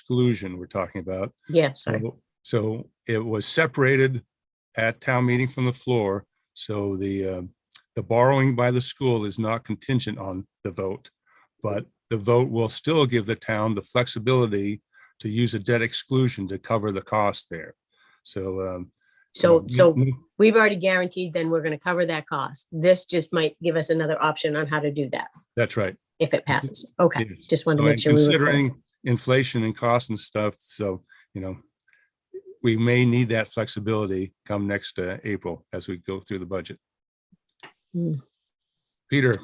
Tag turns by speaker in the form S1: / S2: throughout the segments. S1: exclusion we're talking about.
S2: Yeah, sorry.
S1: So, so it was separated at town meeting from the floor. So the, uh, the borrowing by the school is not contingent on the vote. But the vote will still give the town the flexibility to use a debt exclusion to cover the cost there. So, um.
S2: So,
S1: you-
S2: so
S1: you-
S2: we've already guaranteed then we're going to cover that cost. This just might give us another option on how to do that
S1: That's right.
S2: if it passes. Okay,
S1: Yes.
S2: just wanted
S1: Mm-hmm. So
S2: to
S1: in
S2: make sure. we were clear.
S1: Considering inflation and cost and stuff, so, you know, we may need that flexibility come next uh, April as we go through the budget.
S2: Hmm.
S1: Peter,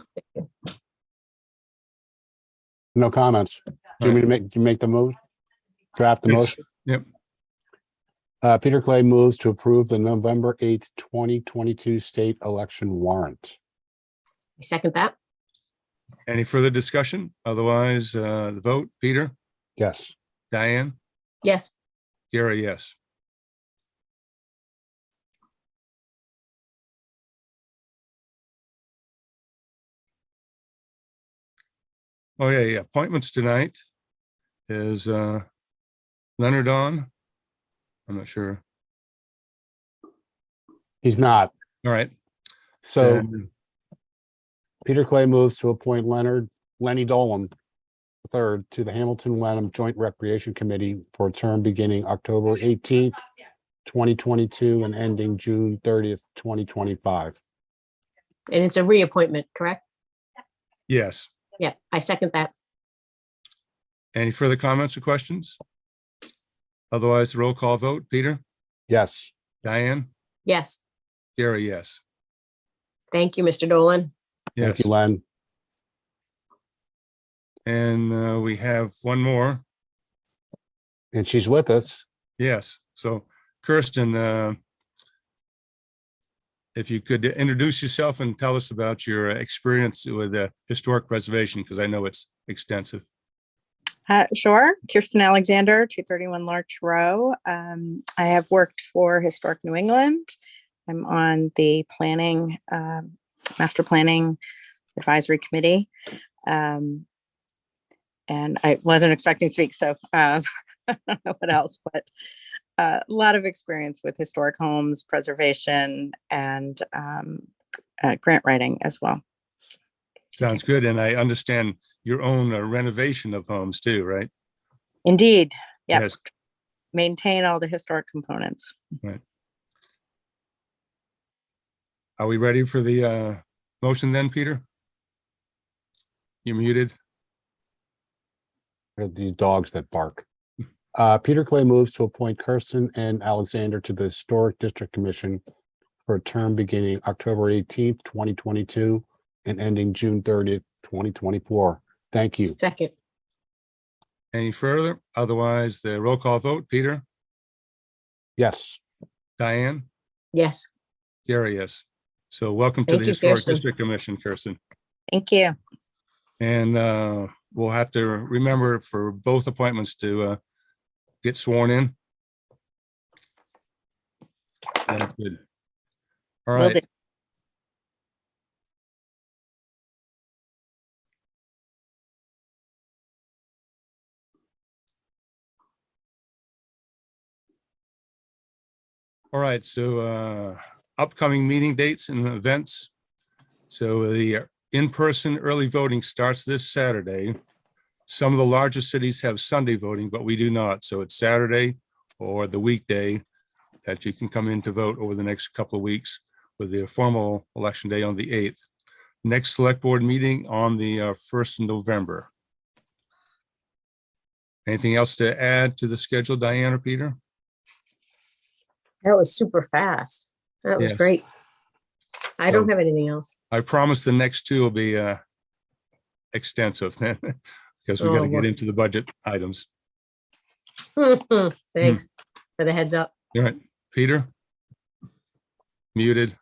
S3: No comments. Do you want me to make, do you make the move? Draft the
S1: Yes.
S3: motion?
S1: Yep.
S3: Uh, Peter Clay moves to approve the November eighth, twenty twenty-two state election warrant.
S2: Second that?
S1: uh, any further discussion? Otherwise, uh, the vote, Peter,
S3: Yes.
S1: Diane,
S2: Yes.
S1: Gary, yes. Oh, yeah, yeah. Appointments tonight is uh, Leonard on? I'm not sure.
S3: He's not.
S1: All right.
S3: So
S1: and
S3: Peter Clay moves to appoint Leonard, Lenny Dolan III to the Hamilton Wenham Joint Recreation Committee for a term beginning October eighteenth, twenty twenty-two and ending June thirtieth, twenty twenty-five.
S2: And it's a reappointment, correct?
S1: Yes.
S2: Yeah, I second that.
S1: Any further comments or questions? Otherwise, roll call vote. Peter,
S3: Yes.
S1: Diane,
S2: Yes.
S1: Gary, yes.
S2: Thank you, Mr. Dolan.
S1: Yes.
S3: Thank you, Len.
S1: And uh, we have one more.
S3: And she's with us.
S1: Yes, so Kirsten, uh, if you could introduce yourself and tell us about your experience with uh, historic preservation, because I know it's extensive.
S4: Uh, sure. Kirsten Alexander, 231 Larch Row. Um, I have worked for Historic New England. I'm on the planning, um, master planning advisory committee. Um, and I wasn't expecting to speak, so um, I don't know what else, but uh, a lot of experience with historic homes, preservation, and um, uh, grant writing as well.
S1: Sounds good, and I understand your own uh, renovation of homes too, right?
S4: Indeed, Yep.
S1: Yes.
S4: maintain all the historic components.
S1: Are we ready for the uh, motion then, Peter? You're muted.
S3: They're uh, These dogs that bark. Uh, Peter Clay moves to appoint Kirsten and Alexander to the Historic District Commission for a term beginning October eighteenth, twenty twenty-two and ending June thirtieth, twenty twenty-four. Thank you.
S2: Second.
S1: Any further? Otherwise, the roll call vote, Peter,
S3: Yes.
S1: Diane,
S2: Yes.
S1: Gary, yes. So welcome to
S2: Thank
S1: the
S2: you,
S1: Historic
S2: Kirsten.
S1: District Commission, Kirsten.
S4: Thank you.
S1: And uh, we'll have to remember for both appointments to uh, get sworn in. Sounds good. All
S4: Will do.
S1: right, all right. So uh, upcoming meeting dates and events. So the in-person early voting starts this Saturday. Some of the larger cities have Sunday voting, but we do not. So it's Saturday or the weekday that you can come in to vote over the next couple of weeks with the formal election day on the 8th. Next select board meeting on the uh, 1st of November. Anything else to add to the schedule, Diane or Peter?
S2: That was super fast. That was
S1: Yeah.
S2: great. I don't
S1: Um,
S2: have anything else.
S1: I promise the next two will be uh, extensive then, because we got
S2: Oh,
S1: to get
S2: what-
S1: into the budget items.
S2: Thanks
S1: Hmm.
S2: for the heads up.
S1: All right, Peter? Muted.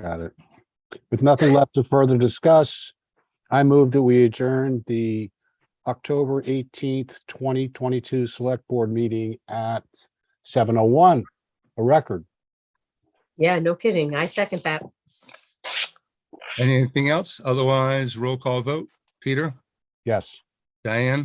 S3: Got it. With nothing left to further discuss, I move that we adjourn the October eighteenth, twenty twenty-two Select Board meeting at seven oh one, a record.
S2: Yeah, no kidding. I second that.
S1: Anything else? Otherwise, roll call vote. Peter,
S3: Yes.
S1: Diane?